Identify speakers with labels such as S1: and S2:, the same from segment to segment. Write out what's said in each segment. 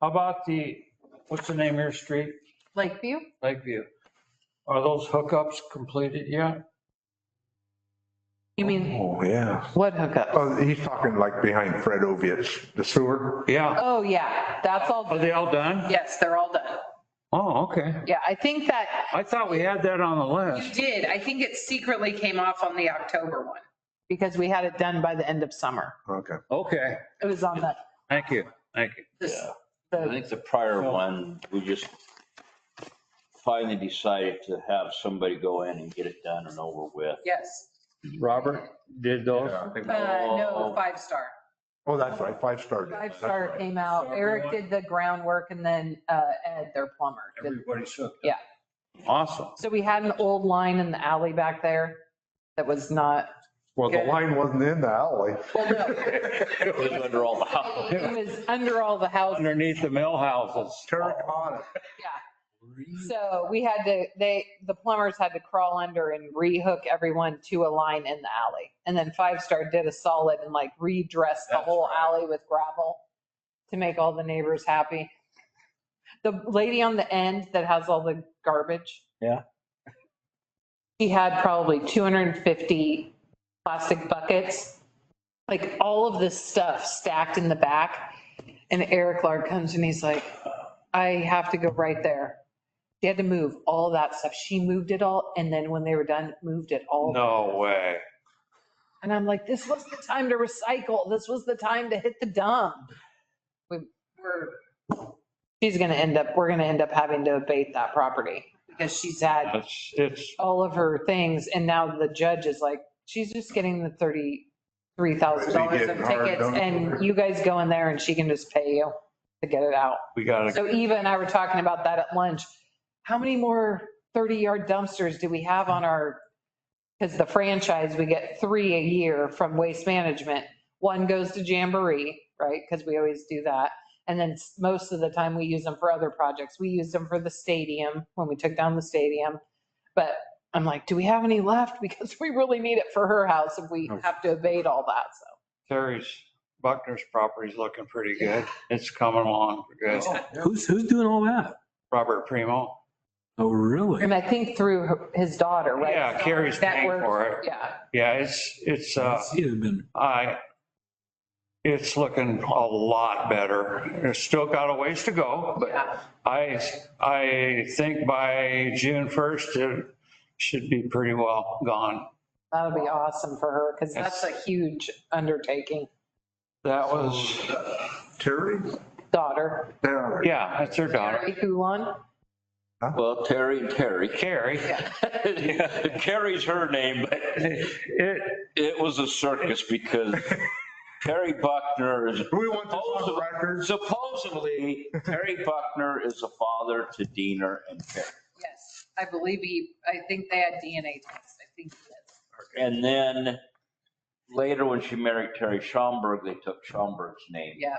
S1: How about the, what's the name of your street,
S2: Lakeview?
S1: Lakeview? Are those hookups completed yet?
S2: You mean,
S3: Oh, yeah.
S2: what hookup?
S3: Oh, he's talking like behind Fred Oviatt's, the sewer.
S1: Yeah.
S2: Oh, yeah, that's
S1: Are
S2: all,
S1: they all done?
S2: yes, they're all done.
S1: Oh, okay.
S2: Yeah, I think that,
S1: I thought we had that on the
S4: You
S1: list.
S4: did. I think it secretly came off on the October one.
S2: because we had it done by the end of summer.
S3: Okay.
S1: Okay,
S2: It was on the,
S1: thank you, thank you.
S2: this-
S5: Yeah. I
S2: the,
S5: think the prior one, we just finally decided to have somebody go in and get it done and over with.
S4: Yes.
S1: Robert did those?
S3: Yeah, I think-
S4: Uh, no, five star.
S3: Oh, that's right, five started.
S2: five star came out. Eric did the groundwork and then uh, Ed, their plumber. did-
S1: Everybody's hooked.
S2: Yeah.
S1: Awesome.
S2: So we had an old line in the alley back there that was not,
S3: Well, the line wasn't in the alley.
S2: well, no,
S5: It was under all the house.
S2: it was under all the houses.
S1: Underneath the mill houses.
S3: Terracotta.
S2: So we had to, they, the plumbers had to crawl under and rehook everyone to a line in the alley. And then Five Star did a solid and like redressed the
S1: That's
S2: whole alley with gravel to make all the neighbors happy. The lady on the end that has all the garbage.
S1: Yeah.
S2: She had probably 250 plastic buckets, like all of this stuff stacked in the back. And Eric Lard comes and he's like, I have to go right there. They had to move all that stuff. She moved it all, and then when they were done, moved it all.
S1: No way.
S2: And I'm like, this was the time to recycle. This was the time to hit the dump.
S4: We're,
S2: She's gonna end up, we're gonna end up having to abate that property because she's had
S1: It's, it's,
S2: all of her things, and now the judge is like, she's just getting the thirty-three thousand dollars of
S3: Getting hard
S2: tickets,
S3: done.
S2: and you guys go in there and she can just pay you to get it out.
S1: we gotta,
S2: So Eva and I were talking about that at lunch. How many more 30-yard dumpsters do we have on our, because the franchise, we get three a year from Waste Management. One goes to Jamboree, right? Because we always do that. And then s- most of the time, we use them for other projects. We used them for the stadium, when we took down the stadium. But I'm like, do we have any left? Because we really need it for her house if
S1: Oh.
S2: we have to abate all that, so.
S1: Terry's, Buckner's property's looking pretty good. It's coming along good.
S6: Who's, who's doing all that?
S1: Robert Primo.
S6: Oh, really?
S2: And I think through her- his daughter, right?
S1: Yeah, Carrie's
S2: That
S1: paying
S2: works.
S1: for it.
S2: Yeah.
S1: Yeah, it's, it's, uh,
S6: It's either been,
S1: I, it's looking a lot better. There's still got a ways to go, but
S2: Yeah.
S1: I, I think by June 1st, it should be pretty well gone.
S2: That'll be awesome for her because that's a huge undertaking.
S1: That was,
S3: Terry?
S2: Daughter,
S3: There.
S1: yeah, that's her daughter,
S2: Mary Hulan.
S5: Well, Terry and Terry.
S1: Carrie.
S5: Carrie's her name, but
S1: It,
S5: it was a circus because Terry Buckner is
S3: Do we want this on record?
S5: supposedly, Terry Buckner is the father to Diener and Terry.
S4: yes, I believe he, I think they had DNA tests. I think he is.
S5: And then later when she married Terry Schaumburg, they took Schaumburg's name.
S4: Yeah.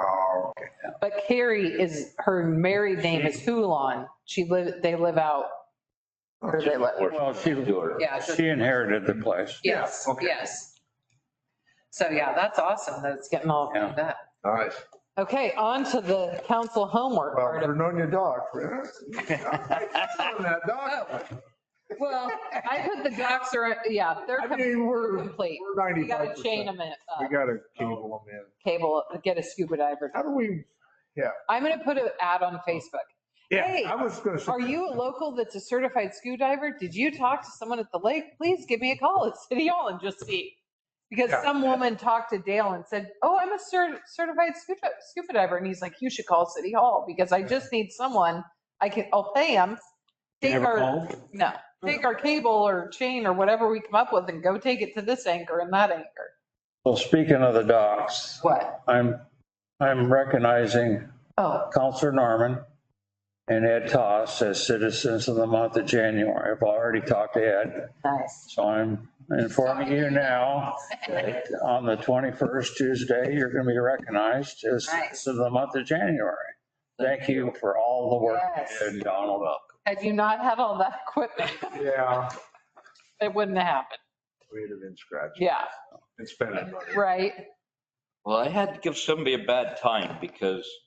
S3: Oh, okay.
S2: But Carrie is, her married name is Hulan. She live, they live out
S3: Oh,
S2: where they live.
S1: well, she,
S5: Stewart.
S4: Yeah. so-
S1: she inherited the place.
S4: Yes,
S3: Yeah, okay.
S4: yes. So yeah, that's awesome that it's
S2: It's getting all,
S1: Yeah.
S4: that.
S3: Nice.
S2: okay, on to the council homework
S3: Well,
S2: part of,
S3: Vernonia Dock. On that dock.
S2: well, I put the docs are, yeah, they're
S3: I mean, we're, we're
S2: complete. We gotta
S3: 95%.
S2: chain them in,
S3: We
S2: uh,
S3: gotta cable them in.
S2: cable, get a scuba diver.
S3: How do we,
S2: I'm gonna put an ad on Facebook. Hey,
S3: yeah, I was gonna say,
S2: Are you a local that's a certified scuba diver? Did you talk to someone at the lake? Please give me a call at City Hall and just see. Because
S3: Yeah.
S2: some woman talked to Dale and said, oh, I'm a cer- certified scuba, scuba diver. And he's like, you should call City Hall because I just need someone. I can, I'll pay him. Take
S6: never
S2: our,
S6: called?
S2: no, take our cable or chain or whatever we come up with and go take it to this anchor and that anchor.
S1: Well, speaking of the docks,
S2: What?
S1: I'm, I'm recognizing
S2: Oh,
S1: Counselor Norman and Ed Toss as citizens of the month of January. I've already talked to Ed,
S2: nice.
S1: so I'm informing you now that on the 21st Tuesday, you're going to be recognized as citizens of the month of January. Thank you for all the work you did, Donald.
S2: Had you not had all that equipment,
S3: yeah,
S2: it wouldn't have happened.
S3: we'd have been scratching
S2: Yeah,
S3: and spending money.
S2: right?
S5: Well, I had to give somebody a bad time because